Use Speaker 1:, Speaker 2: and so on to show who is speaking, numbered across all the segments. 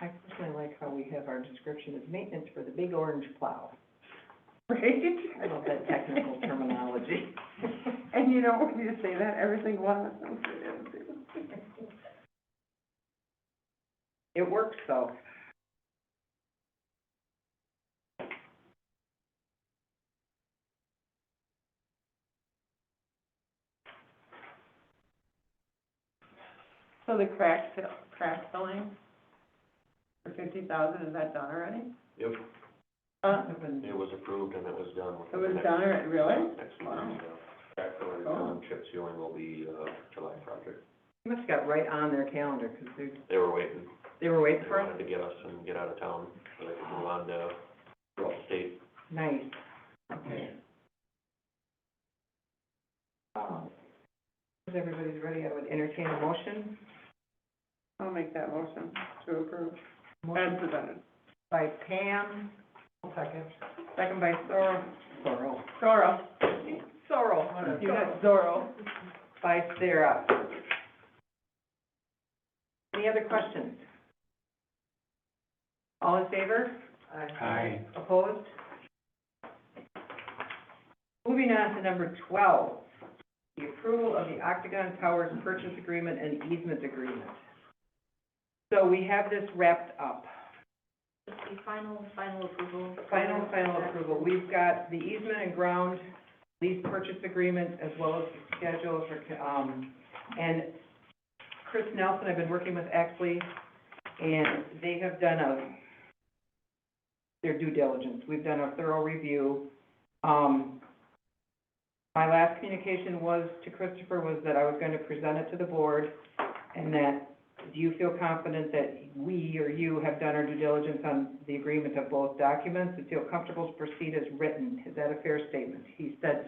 Speaker 1: I personally like how we have our description of maintenance for the big orange plow.
Speaker 2: Right?
Speaker 1: I love that technical terminology.
Speaker 2: And you don't want me to say that every single one of us. knows it is.
Speaker 1: It works though.
Speaker 2: So the crack fill, crack filling for fifty thousand, is that done already?
Speaker 3: Yep,
Speaker 2: Uh,
Speaker 3: it was approved and it was done.
Speaker 2: it was done already, really?
Speaker 3: Next month, yeah. Crack filling is done, chip sealing will be, uh, July project.
Speaker 1: They must have got right on their calendar, because they,
Speaker 3: They were waiting,
Speaker 1: they were
Speaker 3: they
Speaker 1: waiting for
Speaker 3: wanted
Speaker 1: us.
Speaker 3: to get us and get out of town, so they could move on to, throughout the state.
Speaker 1: Nice. Okay. Um, If everybody's ready, I would entertain a motion.
Speaker 2: I'll make that motion to approve as
Speaker 1: Motion
Speaker 2: presented.
Speaker 1: by Pam. Second. Second by Sorrel. Sorrel.
Speaker 2: Zorro,
Speaker 1: Sorrel, one of
Speaker 2: you
Speaker 1: Sorrel.
Speaker 2: got Zorro.
Speaker 1: by Sarah. Any other questions? All in favor?
Speaker 3: Aye.
Speaker 1: Opposed? Moving on to number twelve, the approval of the Octagon Towers purchase agreement and easement agreement. So we have this wrapped up,
Speaker 4: Just the final, final approval.
Speaker 1: final, final approval. We've got the easement and ground lease purchase agreement as well as the schedule for, um, and Chris Nelson, I've been working with Exley, and they have done a, their due diligence. We've done a thorough review. Um, my last communication was, to Christopher, was that I was going to present it to the board, and that, do you feel confident that we or you have done our due diligence on the agreement of both documents, and feel comfortable to proceed as written? Is that a fair statement? He said,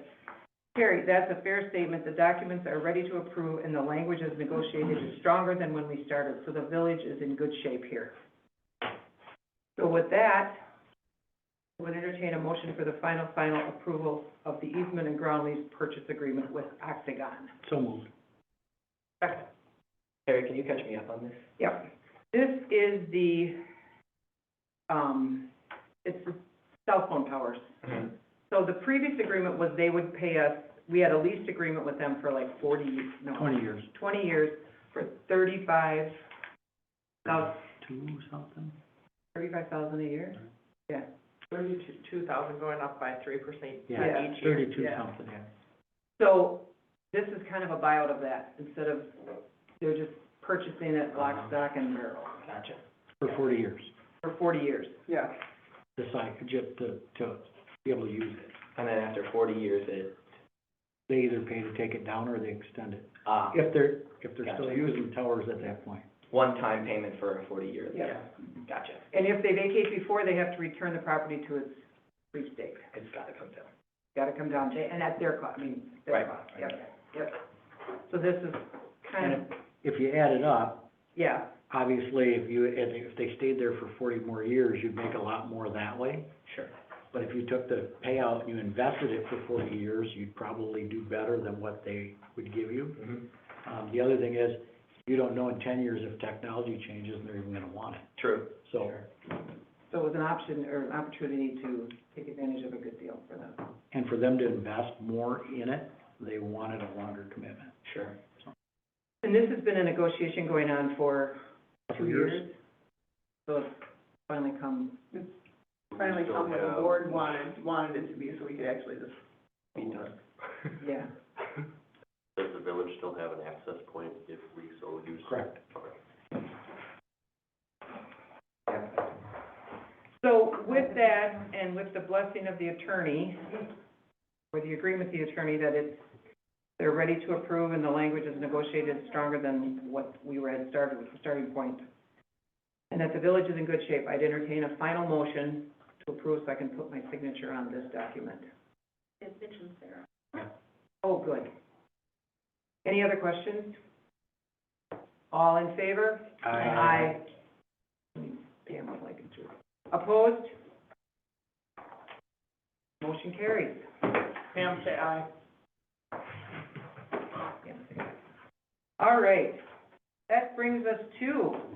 Speaker 1: Terry, that's a fair statement. The documents are ready to approve and the language as negotiated is stronger than when we started, so the village is in good shape here. So with that, I would entertain a motion for the final, final approval of the easement and ground lease purchase agreement with Octagon.
Speaker 5: So moved. Terry, can you catch me up on this?
Speaker 1: Yep. This is the, um, it's the cell phone towers. So the previous agreement was they would pay us, we had a lease agreement with them for like forty, no.
Speaker 5: Twenty years,
Speaker 1: 20 years for 35,
Speaker 5: two something?
Speaker 1: 35,000 a year? Yeah. 32,000 going up by 3%.
Speaker 5: Yeah,
Speaker 1: each year.
Speaker 5: thirty-two
Speaker 1: Yeah.
Speaker 5: something, yeah.
Speaker 1: So this is kind of a buyout of that, instead of, they're just purchasing it lock,
Speaker 5: Uh-huh.
Speaker 1: stock, and barrel
Speaker 5: Gotcha. For forty years,
Speaker 1: for 40 years.
Speaker 2: Yeah.
Speaker 5: the site, just to, to be able to use it.
Speaker 6: And then after forty years, it,
Speaker 5: They either pay to take it down or they extend it,
Speaker 6: uh,
Speaker 5: if they're, if they're still
Speaker 6: Gotcha.
Speaker 5: using towers at that point.
Speaker 6: one-time payment for a forty year lease.
Speaker 1: Yeah.
Speaker 6: Gotcha,
Speaker 1: And if they vacate before, they have to return the property to its lease date.
Speaker 6: it's gotta come down.
Speaker 1: Got to come down, to- and at their cost, I mean, their
Speaker 6: Right.
Speaker 1: cost. Yep, yep. So this is kind of,
Speaker 5: And If you add it up,
Speaker 1: yeah,
Speaker 5: obviously, if you, and if they stayed there for forty more years, you'd make a lot more that way.
Speaker 6: Sure.
Speaker 5: But if you took the payout, and you invested it for forty years, you'd probably do better than what they would give you.
Speaker 6: Mm-hmm.
Speaker 5: Um, the other thing is, you don't know in ten years if technology changes and they're even gonna want it,
Speaker 6: True.
Speaker 5: so.
Speaker 1: so it was an option or an opportunity to take advantage of a good deal for them.
Speaker 5: And for them to invest more in it, they wanted a longer commitment.
Speaker 6: Sure.
Speaker 1: And this has been a negotiation going on for two years. So it's finally come,
Speaker 2: Finally
Speaker 3: We still
Speaker 2: come with the
Speaker 3: have-
Speaker 2: board wanted, wanted it to be, so we could actually just,
Speaker 6: Be done.
Speaker 1: yeah.
Speaker 3: Does the village still have an access point if we so use?
Speaker 5: Correct.
Speaker 3: Okay.
Speaker 1: So with that, and with the blessing of the attorney, or the agreement with the attorney that it's, they're ready to approve and the language is negotiated stronger than what we were at started, with the starting point, and that the village is in good shape, I'd entertain a final motion to approve so I can put my signature on this document.
Speaker 4: It's Mitch and Sarah.
Speaker 1: Oh, good. Any other questions? All in favor? Aye. Damn, I'm like a jerk. Opposed? Motion carries.
Speaker 2: Pam, say aye.
Speaker 1: All right. That brings us to